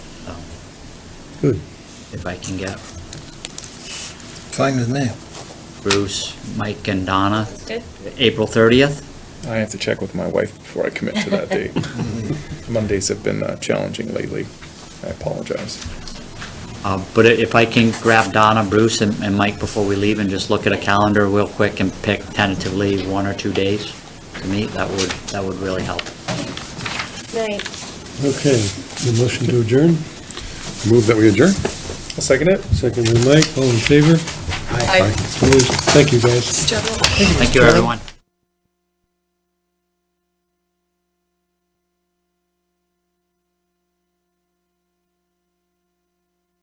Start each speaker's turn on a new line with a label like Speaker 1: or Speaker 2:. Speaker 1: Good.
Speaker 2: If I can get
Speaker 3: Fine with me.
Speaker 2: Bruce, Mike, and Donna,
Speaker 4: That's good.
Speaker 2: April 30th?
Speaker 5: I have to check with my wife before I commit to that date. Mondays have been uh, challenging lately. I apologize.
Speaker 2: Uh, But i- if I can grab Donna, Bruce, and and Mike before we leave and just look at a calendar real quick and pick tentatively one or two days to meet, that would, that would really help.
Speaker 4: Night.
Speaker 1: Okay, the motion to adjourn? Move that we adjourn.
Speaker 5: I'll second it.
Speaker 1: Second by Mike, all in favor?
Speaker 4: Aye.
Speaker 1: Opposed? Thank you, guys.
Speaker 2: Thank you, everyone.